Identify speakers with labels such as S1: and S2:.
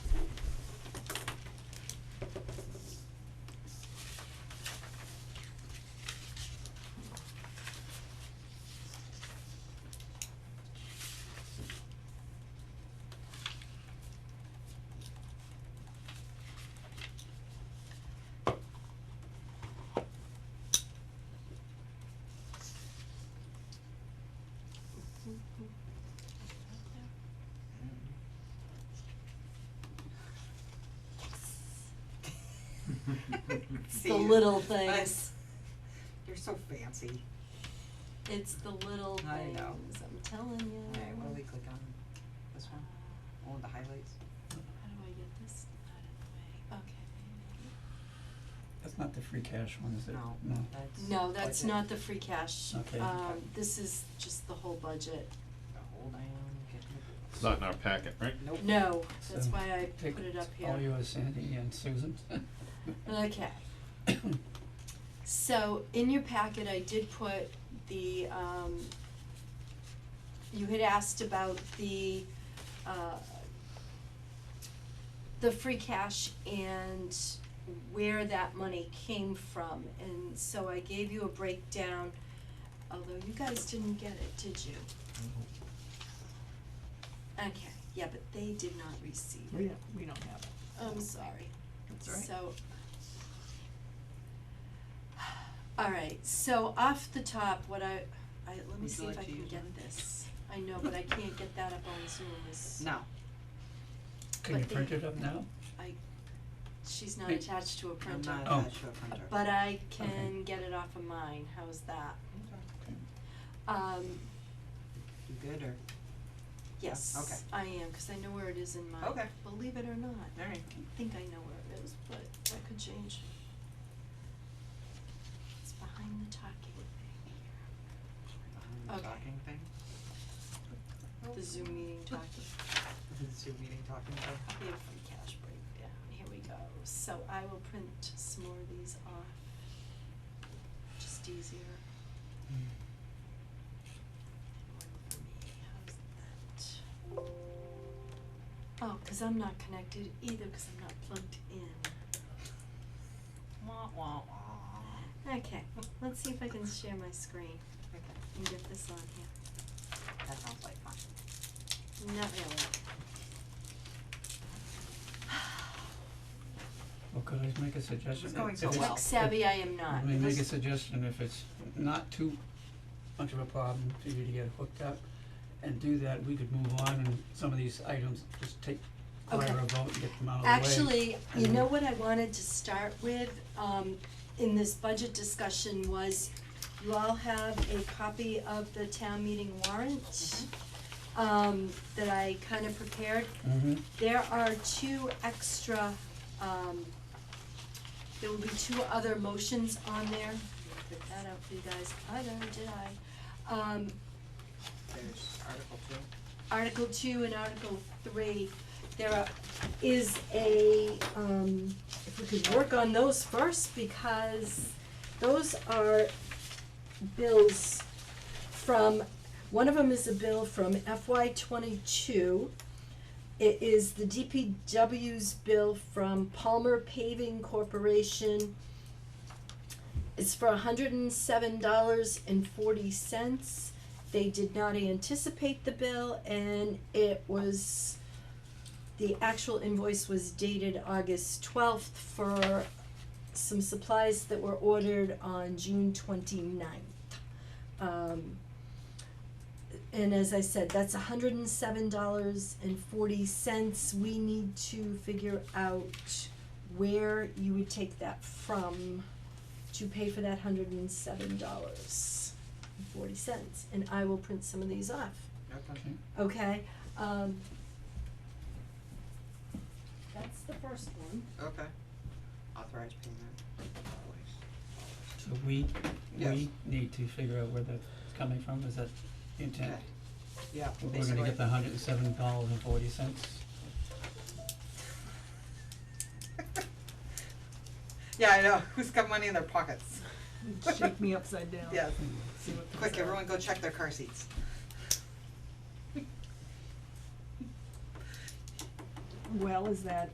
S1: The little things.
S2: You're so fancy.
S1: It's the little
S2: I
S1: things,
S2: know.
S1: I'm telling you.
S2: Alright, what do we click on? This one? Oh, the highlights?
S1: How do I get this out of the way? Okay.
S3: That's not the free cash one, is it?
S2: No, that's.
S1: No, that's
S2: budget.
S1: not the free cash.
S3: Okay.
S1: Um, this is just the whole budget.
S2: Hold on, get the-
S4: It's not in our packet, right?
S2: Nope.
S1: No, that's
S3: So,
S1: why I
S3: Take
S1: put it up here.
S3: All yours, Sandy and Susan.
S1: Okay. So in your packet, I did put the, um, you had asked about the, uh, the free cash and where that money came from. And so I gave you a breakdown, although you guys didn't get it, did you? Okay, yeah, but they did not receive it.
S5: We don't, we don't have it.
S1: I'm sorry.
S5: That's all right.
S1: So. Alright, so off the top, what I, I, let me
S2: Would
S1: see
S2: you
S1: if I
S2: like to
S1: can
S2: use
S1: get
S2: mine?
S1: this. I know, but I can't get that up on Zoom, is,
S2: No,
S3: Can you
S1: But
S3: print
S1: the-
S3: it up now?
S1: I, she's not
S3: Hey.
S1: attached to a
S2: I'm
S1: printer.
S2: not
S3: Oh.
S2: attached to a printer.
S1: But I
S3: Okay.
S1: can get it off of mine, how's that?
S3: Okay.
S1: Um,
S2: You good or?
S1: yes, I am, cause I know where it is in mine,
S2: Okay.
S1: believe it or not.
S2: Alright.
S1: I think I know where it is, but that could change. It's behind the talking thing
S2: Um,
S1: Okay.
S2: Talking thing? Oh.
S1: here, the Zoom meeting talking,
S2: The Zoom meeting talking thing?
S1: we have free cash breakdown, here we go. So I will print some more of these off, just easier. And one for me, how's that? Oh, cause I'm not connected either, cause I'm not plugged in.
S2: Wah, wah, wah.
S1: Okay, let's see if I can share my screen
S2: Okay,
S1: and get this on here.
S2: that sounds like fun.
S1: Not really.
S3: Well, could I make a suggestion?
S2: It's going so
S3: If it's-
S2: well.
S1: Tech savvy I am not.
S3: Oh, Let me make a
S1: This-
S3: suggestion, if it's not too much of a problem for you to get hooked up and do that, we could move on and some of these items, just take
S1: Okay.
S3: quieter vote and get them out of the way. Mm-hmm.
S1: Actually, you
S3: and-
S1: know what I wanted to start with, um, in this budget discussion was, you all have a copy of the town meeting warrant,
S3: Mm-hmm.
S1: um, that I kind of prepared.
S3: Mhm.
S1: There are two extra, um, there will be two other motions on there. Put that out for you guys, I know, did I? Um,
S2: There's Article two.
S1: Article two and Article three, there are, is a, um, if we could work on those first, because those are bills from, one of them is a bill from FY twenty-two. It is the DPW's bill from Palmer Paving Corporation. It's for hundred and seven dollars and forty cents. They did not anticipate the bill and it was, the actual invoice was dated August twelfth for some supplies that were ordered on June twenty-ninth. Um, and as I said, that's hundred and seven dollars and forty cents. We need to figure out where you would take that from to pay for that hundred and seven dollars and forty cents. And I will print some of these off,
S2: Okay.
S3: Okay.
S1: okay? Um, that's the first one.
S2: Okay. Authorized payment. Always.
S3: So we,
S2: Yes.
S3: we need to figure out where that's coming from, is that the intent?
S2: Okay. Yeah,
S3: We're- We're
S2: basically.
S3: gonna get the hundred and seven dollars and forty cents.
S2: Yeah, I know, who's got money in their pockets?
S5: Shake me upside down.
S2: Yes,
S5: See what comes
S2: quick,
S5: out.
S2: everyone go check their car seats.
S5: Well, is that